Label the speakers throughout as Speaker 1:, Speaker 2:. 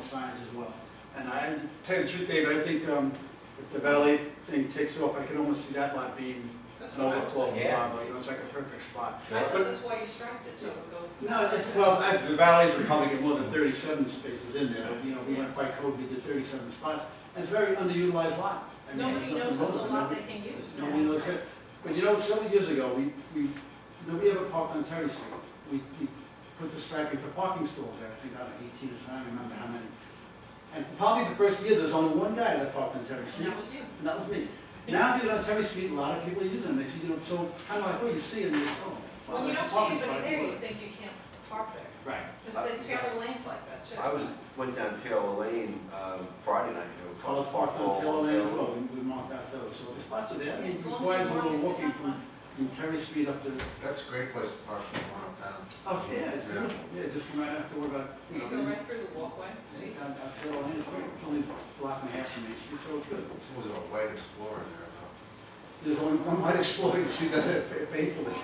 Speaker 1: signs as well. And I, tell you the truth, David, I think um, if the valley thing takes off, I can almost see that lot being
Speaker 2: That's
Speaker 1: an
Speaker 2: what I was
Speaker 1: overflow
Speaker 2: thinking.
Speaker 1: for
Speaker 3: Yeah.
Speaker 1: Pablo, you know, it's like a perfect spot.
Speaker 2: I
Speaker 1: But-
Speaker 2: thought that's why you striped it, so it would go.
Speaker 1: No, it's, well, I- the valleys are probably get more than thirty-seven spaces in there, you know, we went by code, we did thirty-seven spots. And it's a very underutilized lot. I mean, there's
Speaker 2: Nobody knows
Speaker 1: nothing
Speaker 2: it's a
Speaker 1: wrong with it.
Speaker 2: lot they can use.
Speaker 1: No one knows it. But you know, several years ago, we, we, nobody ever parked on Terry Street. We, we put the striping for parking stalls there, I think about eighteen, or so, I don't remember how many. And probably the first year, there was only one guy that parked on Terry
Speaker 2: And
Speaker 1: Street,
Speaker 2: that was you.
Speaker 1: and that was me. Now, if you go on Terry Street, a lot of people use them, they see, you know, so kind of like, oh, you see it, and you go, oh. wow,
Speaker 2: When you don't
Speaker 1: that's a
Speaker 2: see
Speaker 1: parking spot.
Speaker 2: anybody there, you think you can't park there.
Speaker 1: Right.
Speaker 2: Because
Speaker 1: Uh,
Speaker 2: the Taylor Lane's like that, too.
Speaker 4: I was, went down Taylor Lane um, Friday night, you know,
Speaker 1: Cars
Speaker 4: cars parked
Speaker 1: parked on Taylor
Speaker 4: all over.
Speaker 1: Lane as well, we we marked out those, so the spots are there, I mean, it
Speaker 2: As long as
Speaker 1: requires a
Speaker 2: you
Speaker 1: little
Speaker 2: walk it,
Speaker 1: walking
Speaker 2: it's not
Speaker 1: from, from Terry Street up to
Speaker 5: That's a great place to park when you're going uptown.
Speaker 1: Oh, yeah, it's
Speaker 5: Yeah.
Speaker 1: beautiful. Yeah, just come right after we're about, you
Speaker 2: You
Speaker 1: know,
Speaker 2: go right through the walkway.
Speaker 1: it's down- down Taylor Lane, it's only- it's only a block and a half from Main Street, so it's good.
Speaker 5: Someone's got a white Explorer in there, though.
Speaker 1: There's only one might explore to see that faithfully.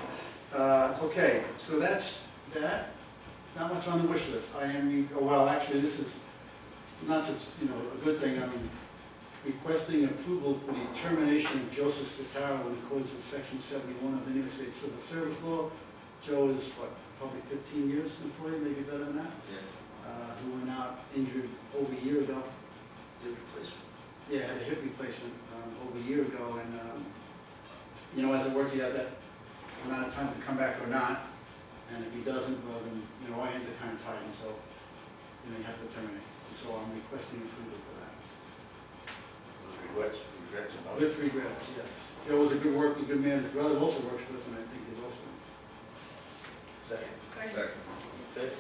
Speaker 1: Uh, okay, so that's that. Not much on the wish list. I am, oh, well, actually, this is not such, you know, a good thing. I'm requesting approval for the termination of Joseph Spataro in accordance with section seventy-one of the New York State Civil Service Law. Joe is, what, probably fifteen years employee, maybe better than that. uh, who went out injured over a year ago.
Speaker 4: Did replacement.
Speaker 1: Yeah, had a hip replacement um, over a year ago, and, um, you know, as it works, he had that amount of time to come back or not, and if he doesn't, well, then, you know, our hands are kind of tied, and so, you know, you have to terminate. And So I'm requesting approval for that.
Speaker 4: Regrets, regrets about it.
Speaker 1: With regrets, yes. Joe was a good worker, a good man, his brother also works for us, and I think he's also.
Speaker 4: Second.
Speaker 2: Second.
Speaker 4: Okay.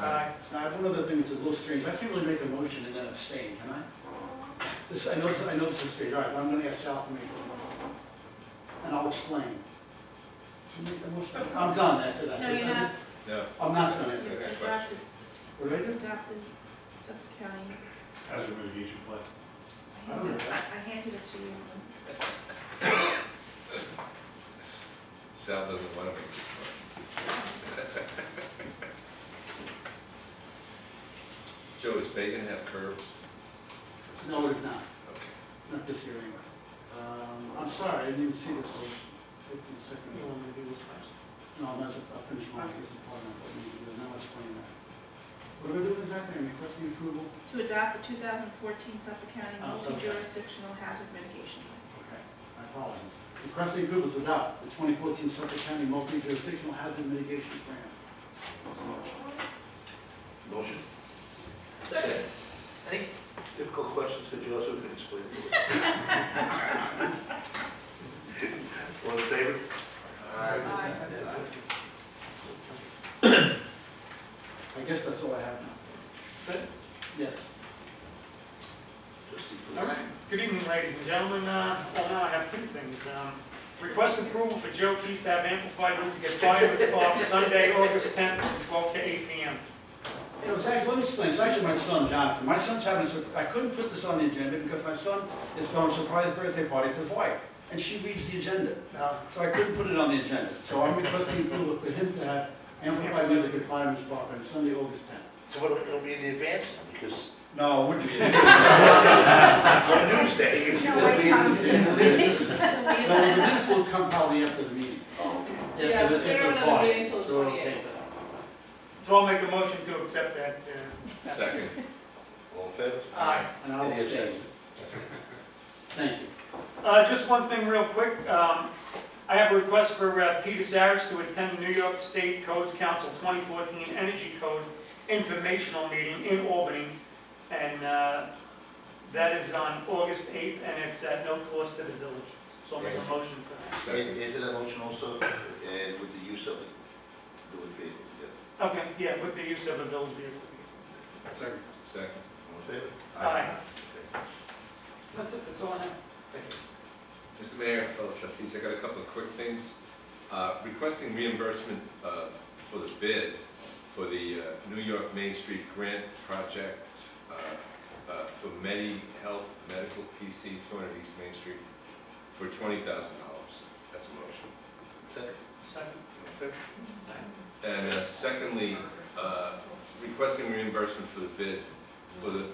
Speaker 1: Now, I have one other thing that's a little strange, I can't really make a motion and then abstain, can I? This, I know, I know this is strange, all right, but I'm gonna ask Sal to make a motion. And I'll explain. Should we make the motion?
Speaker 2: Of
Speaker 1: I'm
Speaker 2: course.
Speaker 1: done after that.
Speaker 6: No, you're
Speaker 1: I'm
Speaker 6: not.
Speaker 1: just-
Speaker 3: No.
Speaker 1: I'm not done after
Speaker 6: You've
Speaker 1: that.
Speaker 6: adopted,
Speaker 1: What do I
Speaker 6: you've
Speaker 1: do?
Speaker 6: adopted Suffolk County.
Speaker 7: How's your mitigation plan?
Speaker 6: I handed, I handed it to you.
Speaker 3: Sal doesn't want to make this motion. Joe, is bacon have curves?
Speaker 1: No, it's not,
Speaker 3: Okay.
Speaker 1: not this year anyway. Um, I'm sorry, I didn't even see this, so, fifteen seconds. You want me to do this first? No, I'm not, I'll finish my, this is part of what you do, and I'll explain that. What do I do exactly, I'm requesting approval?
Speaker 6: To adopt the 2014 Suffolk County
Speaker 1: Oh, okay.
Speaker 6: multi-jurisdictional hazard mitigation plan.
Speaker 1: Okay, I apologize. Requesting approval to adopt the 2014 Suffolk County Multi-Jurisdictional Hazard Mitigation Plan. Oh.
Speaker 4: Motion.
Speaker 2: Second.
Speaker 4: Any difficult questions for Joseph, can explain to us? All in favor?
Speaker 2: Aye.
Speaker 1: I guess that's all I have now. Yes.
Speaker 4: Trustee
Speaker 8: All
Speaker 4: Felice.
Speaker 8: right. Good evening, ladies and gentlemen. Uh, Well, now I have two things. Um, Request approval for Joe Keys to have amplified music at Fireman's Park Sunday, August 10th, from 12 to 8 p.m.
Speaker 1: It was actually, let me explain, it's actually my son Jonathan. My son's having, a sur- I couldn't put this on the agenda because my son is throwing a surprise birthday party for his wife, and she reads the agenda.
Speaker 8: Uh,
Speaker 1: So I couldn't put it on the agenda. So I'm requesting approval for him to have amplified music at Fireman's Park on Sunday, August 10th.
Speaker 4: So what, it'll be in the advance, because
Speaker 1: No, it wouldn't be.
Speaker 4: on Tuesday, you
Speaker 6: No, wait,
Speaker 4: can-
Speaker 1: No, this will come probably after the meeting.
Speaker 2: Yeah,
Speaker 1: this
Speaker 2: but
Speaker 1: is
Speaker 2: they're
Speaker 1: the
Speaker 2: not
Speaker 1: bar,
Speaker 2: meeting till
Speaker 1: so we'll
Speaker 2: 28.
Speaker 1: take that.
Speaker 8: So I'll make a motion to accept that. uh,
Speaker 3: Second.
Speaker 4: All in favor?
Speaker 8: Aye.
Speaker 1: And I'll
Speaker 4: Any
Speaker 1: stay.
Speaker 4: abstentions?
Speaker 1: Thank you.
Speaker 8: Uh, Just one thing real quick. Um, I have a request for uh, Peter Saris to attend the New York State Codes Council 2014 Energy Code Informational Meeting in Albany. And uh, that is on August 8th, and it's at no cost to the village. So I'll make a motion for
Speaker 4: And, and to that motion also, and with the use of the village vehicle, yeah,
Speaker 8: that. Okay, yeah, with the use of a village vehicle.
Speaker 1: Second.
Speaker 3: Second.
Speaker 4: all in favor?
Speaker 8: Aye.
Speaker 2: That's it, that's all I have.
Speaker 3: Mr. Mayor, fellow trustees, I got a couple of quick things. Uh, Requesting reimbursement uh, for the bid for the uh, New York Main Street Grant Project uh, uh, for Medi Health Medical PC, 200 East Main Street, for $20,000. That's a motion.
Speaker 4: Second,
Speaker 8: Second.
Speaker 4: all in favor?
Speaker 3: And uh, secondly, uh, requesting reimbursement for the bid for the